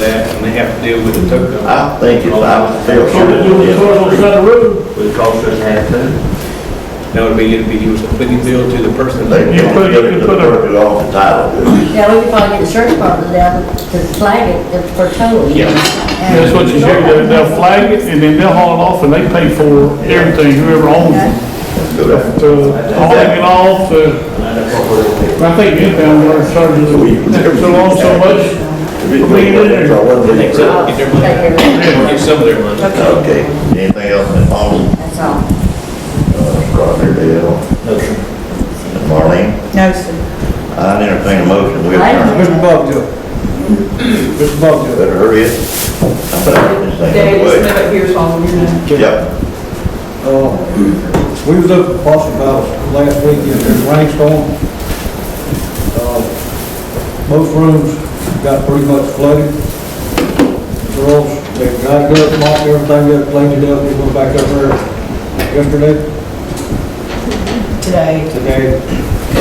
that, and they have to deal with the tow company. I think if I was still Put it shooting on the this, car on the side of the road, would cost us half too. That would be, it'd be, you was putting the bill to the person. They You can't put- give it you to the could put a- person who owns the title. Yeah, we could probably get the sheriff department down to flag it to- for towing. Yeah. that's what you should, do. they'll flag it, and then they'll haul it off, and they pay for everything, whoever owns it. To hauling it off, to, I think you found where it started, so long, so much, If it's doing that, so I wasn't in trouble. Get their money, get some of their money. Okay, anything else in Paul's, That's all. uh, Roger Dale? And Marlene, No, sir. I entertain a motion, we I- adjourn. Mr. Bobjo. Mr. Bobjo. Better hurry it. I'm about to get this thing Dave, just away. move up here so I'll hear you. Yep, Uh, We was up at Boston College last week, it was a rainstorm. Uh, Most rooms got pretty much flooded. Girls, they got it up, mopped everything up, cleaned it up, we went back up there yesterday. Today. Today.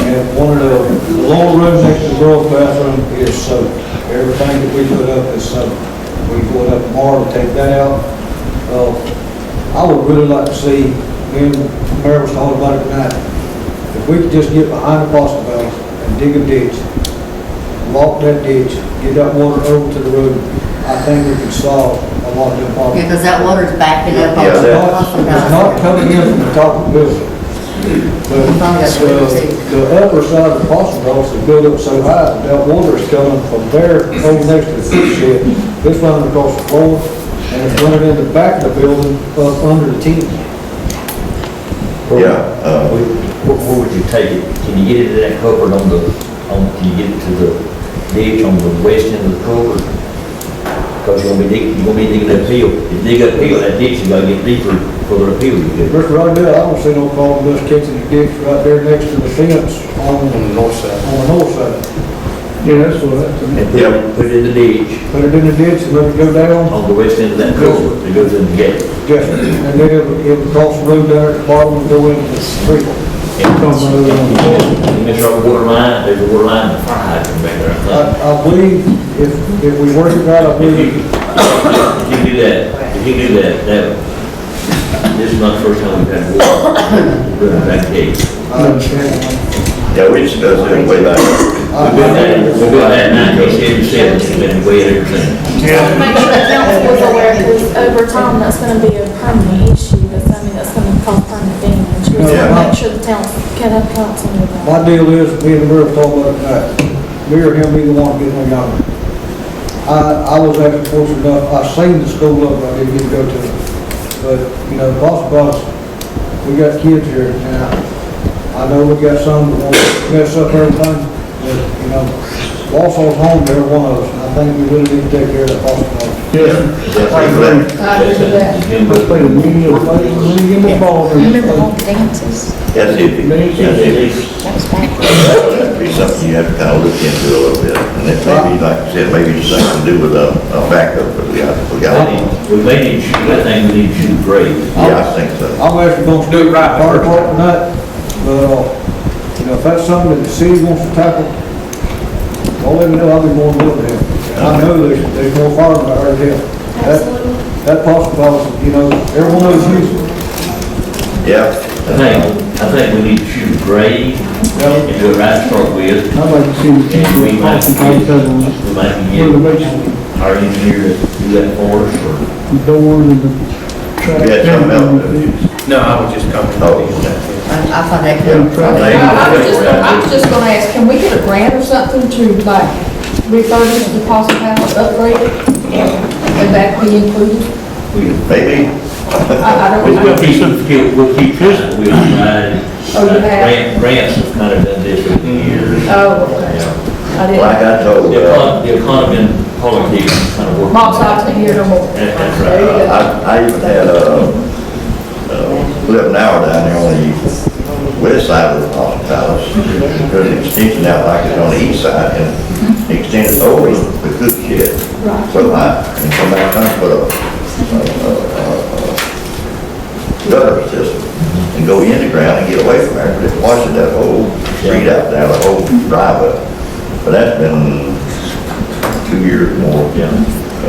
And one of the the lower rooms next to the girls' bathroom is soaked. Everything that we put up is soaked. We go up tomorrow, take that out. Uh, I would really like to see, me and the Mayor was talking about it tonight, if we could just get behind the Boston Valley and dig a ditch, lock that ditch, get that water over to the road, I think we could solve a lot of them Yeah, problems. because that water's backing up. on Yeah, It's the that- not, Boston it's College. not coming in from the top of the building. But That's what I'm saying. the, the upper side of the Boston Valley is built up so high, that that water is coming from there over next to the food shed. It's running across the floor, and it's running in the back of the building up under the tent. yeah, uh, Where, where would you take it? Can you get it to that culvert on the, on, can you get it to the ditch on the west end of the culvert? Because you're gonna be digging, you're gonna be digging uphill. If you dig uphill, that ditch is gonna get deeper for the uphill you get. Mr. Rodell, I don't see no problem with us catching the ditch right there next to the fence on, On on the north side. the north side. yeah, that's what, that's. And put it, put it in the ditch Put it in the ditch and let it go down, on the west end of that culvert that goes in the gate. just, and then it'll, it'll cross the road down at the bottom and go into the street. And and There's a water line, there's a water line, and a fire hydrant back there, I, I think. I believe if, if we work it out, I If you, believe if you do that, if you do that, that, this is not the first time we've had water running that gate. I understand. yeah, we discussed it way back. We've been there, we've been there nineteen seventy-seven, we've been way there since. Yeah. Make sure the council is aware, because over time, that's gonna be a permanent issue, that's, I mean, that's gonna cause permanent damage. We Yeah. want to make sure the town, can have council with that. My deal is, me and the mayor talked about it tonight, me or him, either one, get one out. I, I was actually fortunate enough, I seen the school up, I didn't get to go to it. But, you know, boss, boss, we got kids here now. I know we got some that want to mess up everything, but, you know, Walsall's home, they're one of us, and I think we really need to take care of that boss, boss. That's exactly- That's Play the media, play the media, the ball. That's it. That's it. That was back. That'd be something you have to kind of look into a little bit, and it may be, like you said, maybe it's something to do with a, a backup, but we got, we got, yeah, We may need to, I think we need to shoot grade. I think so. I'm actually gonna do it right part part tonight, but, uh, you know, if that's something that the city wants to tackle, don't let me know, I'll be more than willing to help. I know there's, there's more firemen out there to help. That, Absolutely. that possibility, you know, everyone knows you. Yeah. I think, I think we need to shoot grade and do a right start with, I'd like to see the and we team might talking about each other, get, we might where the get basement, our engineer to do that for us, the door and the track. You had something else to do. No, I was just coming. Oh. I I thought that Yeah. could. I was just, I was just gonna ask, can we get a grant or something to like refurbish the Possum Palace, upgrade it? Would that be included? or we. Maybe, I, I don't, We'll I we'll keep, we'll keep this, we'll provide, Oh, you have? grant- grants have kind of done this over the years. Oh, okay. Yeah. I didn't, like I told, The uh, econ- the economy and politics kind of work. Bob's not here no more. That- that's right. There you go. I, I even had, uh, uh, lived an hour down there on the west side of the Austin Palace. There's an extension out like it's on the east side, and extended over the cook shed. So I, and come back and put a, gutter system and go in the ground and get away from there, but it washes that whole street out there, the whole driveway. But that's been two years more. Yeah.